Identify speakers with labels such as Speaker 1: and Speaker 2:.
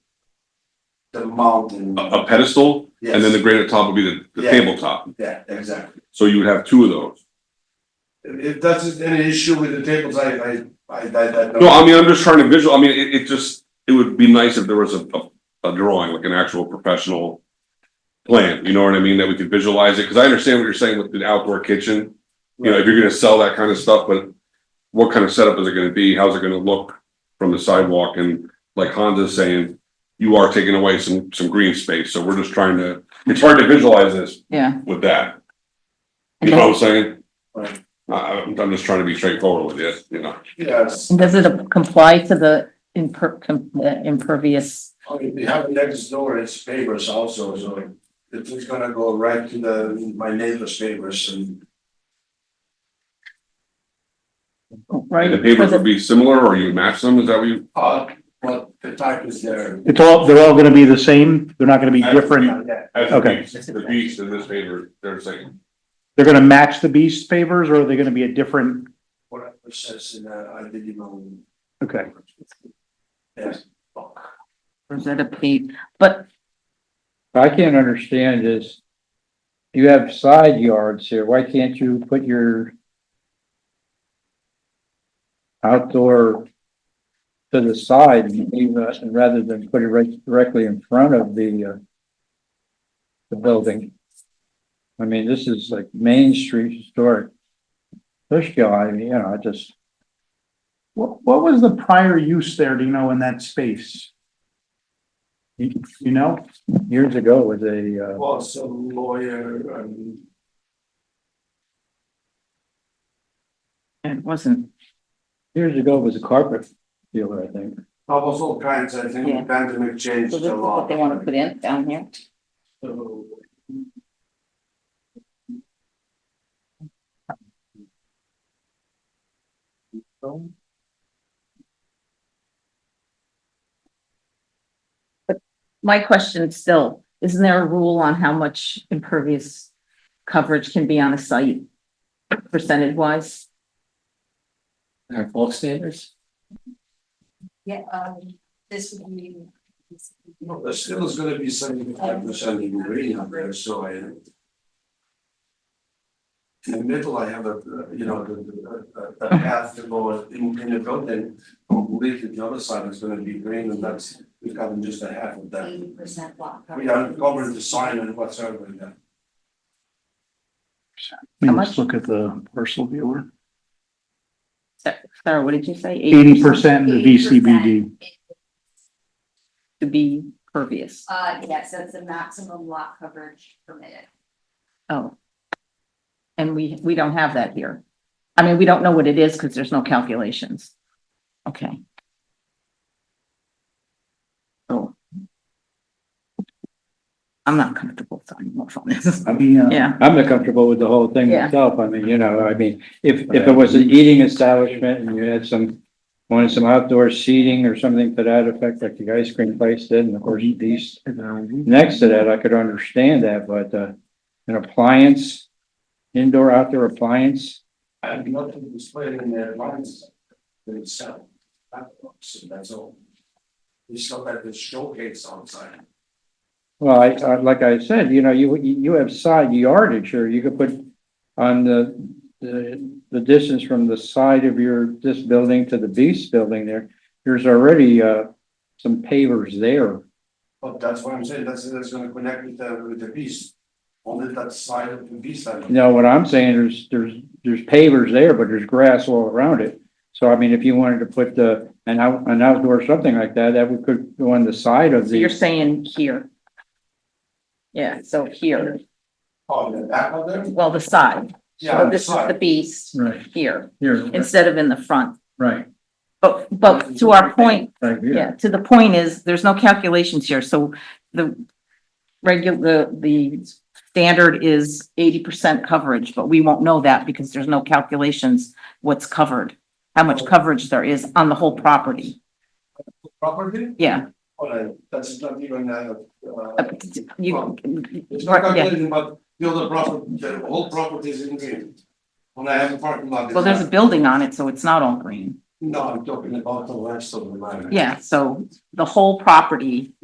Speaker 1: the mountain.
Speaker 2: a, a pedestal, Uh, and then the
Speaker 1: Yes.
Speaker 2: granite top would be the, the
Speaker 1: Yeah.
Speaker 2: tabletop.
Speaker 1: Yeah, exactly.
Speaker 2: So you would have two of those.
Speaker 1: If, if that's an issue with the tables, I, I, I, I, I.
Speaker 2: No, I mean, I'm just trying to visual, I mean, it, it just, it would be nice if there was a, a, a drawing, like an actual professional plan, you know what I mean, that we could visualize it, because I understand what you're saying with the outdoor kitchen. You know, if you're gonna sell that kind of stuff, but what kind of setup is it gonna be? How's it gonna look from the sidewalk? And like Honda's saying, you are taking away some, some green space, so we're just trying to, it's hard to visualize this
Speaker 3: yeah.
Speaker 2: with that.
Speaker 3: And
Speaker 2: You know what I'm saying?
Speaker 1: Right.
Speaker 2: I, I'm, I'm just trying to be straightforward with it, you know?
Speaker 1: Yes,
Speaker 3: does- Does it comply to the imper, com- uh, impervious?
Speaker 1: I mean, we have next door, it's papers also, so it's just gonna go right to the, my neighbor's papers and.
Speaker 2: And
Speaker 3: Right.
Speaker 2: the papers
Speaker 3: because
Speaker 2: would
Speaker 3: it-
Speaker 2: be similar, or you match them, is that what you?
Speaker 1: Uh, but the type is there.
Speaker 4: It's all, they're all gonna be the same, they're not gonna be different,
Speaker 1: Yeah,
Speaker 4: Okay.
Speaker 2: The beast in this paper, they're saying,
Speaker 4: they're gonna match the beast pavers, or are they gonna be a different,
Speaker 1: what I says in, uh, I did email.
Speaker 4: okay.
Speaker 1: Yes.
Speaker 3: Rosetta Pete, but
Speaker 5: I can't understand is you have side yards here, why can't you put your outdoor to the side and leave us- and rather than put it right directly in front of the uh the building? I mean, this is like Main Street historic. This guy, you know, I just,
Speaker 4: What, what was the prior use there, do you know, in that space? You, you know,
Speaker 5: years ago was a uh
Speaker 1: Well, some lawyer and
Speaker 3: it wasn't,
Speaker 5: years ago was a carpet dealer, I think.
Speaker 1: almost all kinds, I think,
Speaker 3: Yeah.
Speaker 1: the pandemic changed
Speaker 3: so this
Speaker 1: a
Speaker 3: is
Speaker 1: lot.
Speaker 3: what they want to put in down here?
Speaker 1: So,
Speaker 3: My question still, isn't there a rule on how much impervious coverage can be on a site? Percentage wise?
Speaker 5: Our bulk standards?
Speaker 6: Yeah, um, this would be.
Speaker 1: no, there still is gonna be seventy-five percent in green up there, so I. In the middle, I have a, uh, you know, the, the, a- a path to go in, in the building, completely the other side is gonna be green, and that's, we've gotten just a half of that.
Speaker 6: Eighty percent block.
Speaker 1: We are covering the sign and whatsoever, yeah.
Speaker 3: How
Speaker 4: let's
Speaker 3: much?
Speaker 4: look at the parcel viewer,
Speaker 3: Sa- Sarah, what did you say?
Speaker 4: eighty percent in the
Speaker 6: 80%.
Speaker 4: VCBD,
Speaker 3: To be pervious.
Speaker 6: Uh, yes, that's the maximum lot coverage permitted.
Speaker 3: Oh. And we, we don't have that here. I mean, we don't know what it is because there's no calculations. Okay. So. I'm not comfortable signing off on this.
Speaker 5: I mean, uh,
Speaker 3: Yeah.
Speaker 5: I'm not comfortable with the whole thing
Speaker 3: Yeah.
Speaker 5: myself. I mean, you know, I mean, if, if it was an eating establishment and you had some, wanted some outdoor seating or something to that effect, like the ice cream place did, and of course, these, next to that, I could understand that, but, uh, an appliance, indoor, outdoor appliance,
Speaker 1: I have nothing to explain in their lines themselves. So that's all. It's not like the showcase outside.
Speaker 5: well, I, I, like I said, you know, you, you have side yardage or you could put on the, the, the distance from the side of your, this building to the beast building there, there's already, uh, some pavers there.
Speaker 1: But that's what I'm saying, that's, that's gonna connect with the, with the beast. Only that side of the beast, I
Speaker 5: No, what I'm saying, there's, there's, there's pavers there, but there's grass all around it. So I mean, if you wanted to put the, an out, an outdoor something like that, that would could go on the side of
Speaker 3: So you're
Speaker 5: the,
Speaker 3: saying here. Yeah, so here,
Speaker 1: on the back of them.
Speaker 3: well, the side,
Speaker 1: Oh. Yeah,
Speaker 3: so
Speaker 1: the
Speaker 3: this is the
Speaker 1: side.
Speaker 3: beast
Speaker 5: right,
Speaker 3: here
Speaker 5: here,
Speaker 3: instead of in the front.
Speaker 5: right,
Speaker 3: But, but to our point,
Speaker 5: right
Speaker 3: Yeah, to the point is, there's no calculations here, so the regular, the standard is eighty percent coverage, but we won't know that because there's no calculations what's covered, how much coverage there is on the whole property,
Speaker 1: Property,
Speaker 3: yeah.
Speaker 1: or that's not even, uh,
Speaker 3: uh,
Speaker 1: uh,
Speaker 3: you-
Speaker 1: it's not
Speaker 3: yeah.
Speaker 1: calculating, but the other property, the whole property is in green. When I have a parking lot. it's
Speaker 3: Well, there's a
Speaker 1: not.
Speaker 3: building on it, so it's not all green,
Speaker 1: No, I'm talking about the rest of the line.
Speaker 3: yeah, so the whole property